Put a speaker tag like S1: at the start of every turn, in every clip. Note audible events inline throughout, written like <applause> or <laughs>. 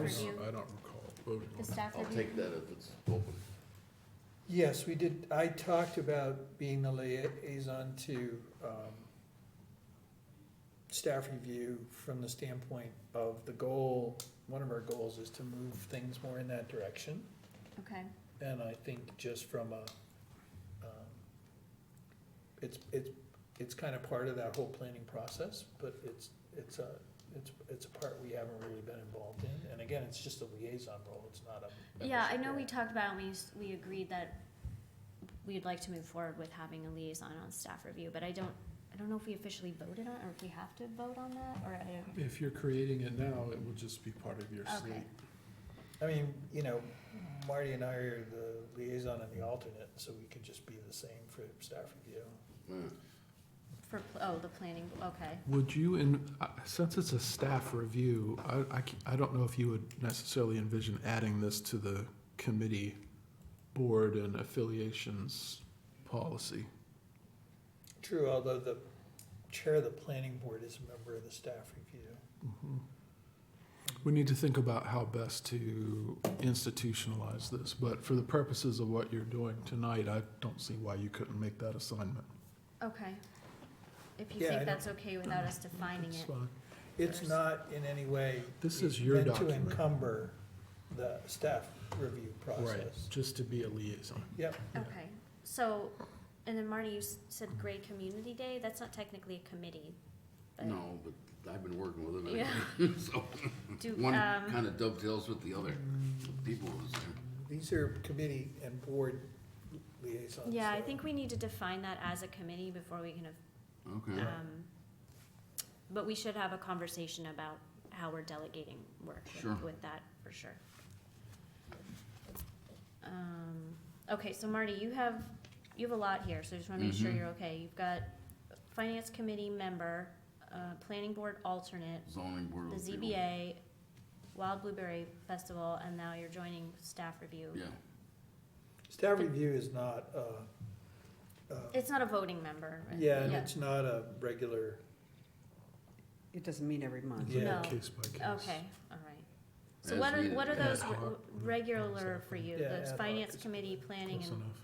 S1: review?
S2: I don't recall voting
S1: The
S2: on
S1: staff
S3: I'll
S1: review?
S3: take that if it's open.
S4: Yes, we did, I talked about being the liaison to um, staff review from the standpoint of the goal, one of our goals is to move things more in that direction.
S1: Okay,
S4: And I think just from a, um, it's, it's, it's kind of part of that whole planning process, but it's, it's a, it's, it's a part we haven't really been involved in. And again, it's just a liaison role, it's not a.
S1: yeah, I
S4: membership
S1: know we
S4: role.
S1: talked about, it, we, s- we agreed that we'd like to move forward with having a liaison on staff review, but I don't, I don't know if we officially voted on, it or if we have to vote on that, or I don't.
S2: it. If you're creating it now, it will just be part of your
S1: Okay.
S2: slate.
S4: I mean, you know, Marty and I are the liaison and the alternate, so we could just be the same for staff review.
S3: Mm.
S1: For, pl- oh, the planning, okay,
S2: Would you, and since it's a staff review, I, I c- I don't know if you would necessarily envision adding this to the committee board and affiliations policy.
S4: True, although the chair of the planning board is a member of the staff review.
S2: Mhm. We need to think about how best to institutionalize this, but for the purposes of what you're doing tonight, I don't see why you couldn't make that assignment.
S1: okay. If you
S4: Yeah, I
S1: think
S4: don't-
S1: that's okay without us defining
S2: It's
S1: it,
S2: fine.
S4: It's
S1: There's-
S4: not in any way.
S2: This is your
S4: Meant
S2: document.
S4: to encumber the staff review
S2: Right,
S4: process.
S2: just to be a liaison.
S4: Yep,
S1: okay, so, and then Marty, you s- said Gray Community Day, that's not technically a committee, but.
S3: No, but I've been working with it.
S1: Yeah.
S3: <laughs>
S1: <laughs>
S3: So
S1: Do,
S3: one
S1: um,
S3: kind of dovetails with the other. People are the same.
S4: these are committee and board liaisons.
S1: Yeah, I
S4: so-
S1: think we need to define that as a committee before we can,
S3: Okay.
S1: um, but we should have a conversation about how we're delegating work with-
S3: Sure.
S1: with that, for sure. Um, okay, so Marty, you have, you have a lot here, so just wanna make sure
S3: Mhm.
S1: you're okay. You've got finance committee member, uh, planning board alternate,
S3: Zoning board.
S1: the
S3: will be-
S1: ZBA, Wild Blueberry Festival, and now you're joining staff review.
S3: Yeah,
S4: Staff review is not, uh, uh,
S1: It's not a voting member, right?
S4: yeah, and it's not a regular,
S5: It doesn't meet every month.
S1: No.
S4: Yeah.
S2: Case by case.
S1: Okay, all right. So
S3: As
S1: what are,
S3: needed,
S1: what are
S3: yeah.
S1: those
S2: Ad
S1: re-
S2: hoc.
S1: regular for you,
S4: Yeah, ad
S1: the
S4: hoc
S1: finance
S4: is-
S1: committee, planning
S2: Close
S1: and,
S2: enough.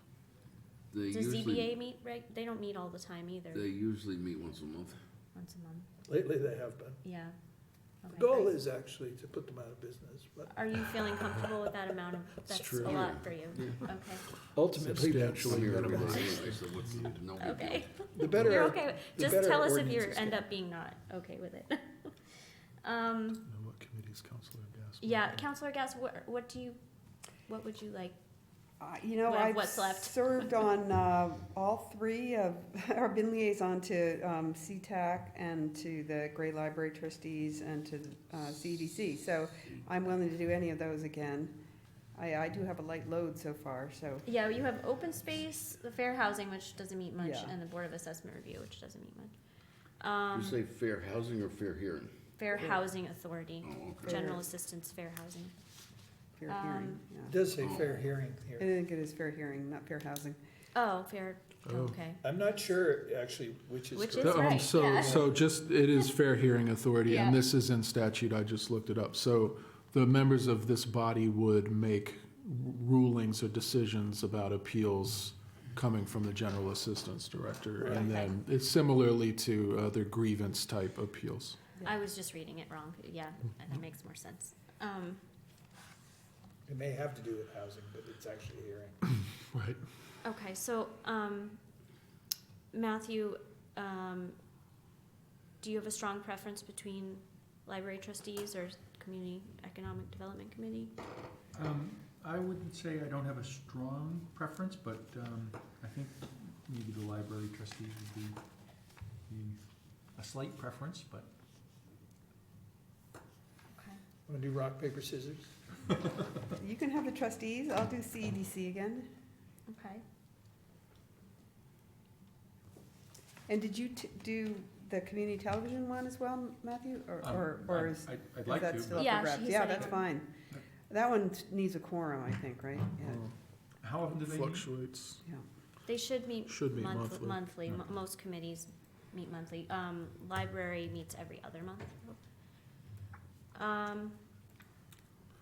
S3: they
S1: does
S3: usually,
S1: ZBA meet reg, they don't meet all the time either,
S3: they usually meet once a month.
S1: once a month,
S4: lately they have been.
S1: yeah. Okay,
S4: The goal
S1: great.
S4: is actually to put them out of business, but
S1: Are you feeling comfortable with that amount of, that's a
S2: true.
S1: lot for you, okay,
S4: ultimately, that's-
S2: Substantially
S3: Here every
S2: minimized.
S3: day anyway, so what's the- no big deal.
S1: okay.
S4: the better.
S1: You're okay, with-
S4: the
S1: just
S4: better
S1: tell us if
S4: ordinance
S1: you
S4: is
S1: end
S4: good.
S1: up being not okay with it. <laughs> Um,
S2: Now, what committees, Counselor Gaspar?
S1: yeah, Counselor Gass, what, what do you, what would you like,
S5: Uh, You know,
S1: Well,
S5: I've
S1: what's left?
S5: served on uh, all three of, <laughs> or been liaison to um, CTAC and to the Gray Library trustees and to uh, CDC. So I'm willing to do any of those again. I, I do have a light load so far, so,
S1: Yeah, you have open space, the fair housing, which doesn't meet much,
S5: Yeah.
S1: and the board of assessment review, which doesn't meet much.
S3: You
S1: Um,
S3: say fair housing or fair hearing?
S1: fair
S5: Fair.
S1: housing authority,
S3: Oh, okay.
S1: general
S5: Fair.
S1: assistance, fair housing.
S5: fair
S1: Um,
S5: hearing.
S4: It
S5: yeah.
S4: does say fair hearing
S5: I
S4: here.
S5: think it is fair hearing, not fair housing.
S1: Oh, fair,
S2: Oh.
S1: okay.
S4: I'm not sure actually which is
S1: Which
S4: correct.
S1: That's
S2: Um,
S1: right, yeah.
S2: So, so just, it is fair hearing authority,
S1: Yeah.
S2: and this is in statute, I just looked it up. So the members of this body would make rulings or decisions about appeals coming from the General Assistance Director. And
S1: Right.
S2: then it's similarly to other grievance type appeals.
S1: I was just reading it wrong, yeah, that makes more sense. Um,
S4: It may have to do with housing, but it's actually hearing.
S2: Right.
S1: okay, so, um, Matthew, um, do you have a strong preference between library trustees or community economic development committee?
S6: Um, I wouldn't say I don't have a strong preference, but, um, I think maybe the library trustees would be, be a slight preference, but
S1: Okay.
S4: Want to do rock, paper, scissors?
S5: You can have the trustees, I'll do CEDC again.
S1: Okay.
S5: And did you t- do the community television one as well, Matthew? Or-
S6: um,
S5: Or, or
S6: I'd-
S5: is
S6: I'd, I'd
S5: If
S6: like
S5: that's
S6: to.
S5: still
S6: but
S5: up
S1: Yeah,
S5: for grabs,
S1: she
S5: yeah,
S1: said it.
S5: that's fine. That one t- needs a quorum, I think, right? Yeah,
S6: How often do they meet?
S2: Fluctuates,
S1: They should meet
S2: should be
S1: Monthly, monthly,
S2: monthly.
S1: Mo- most committees meet monthly, um, library meets every other month. Um,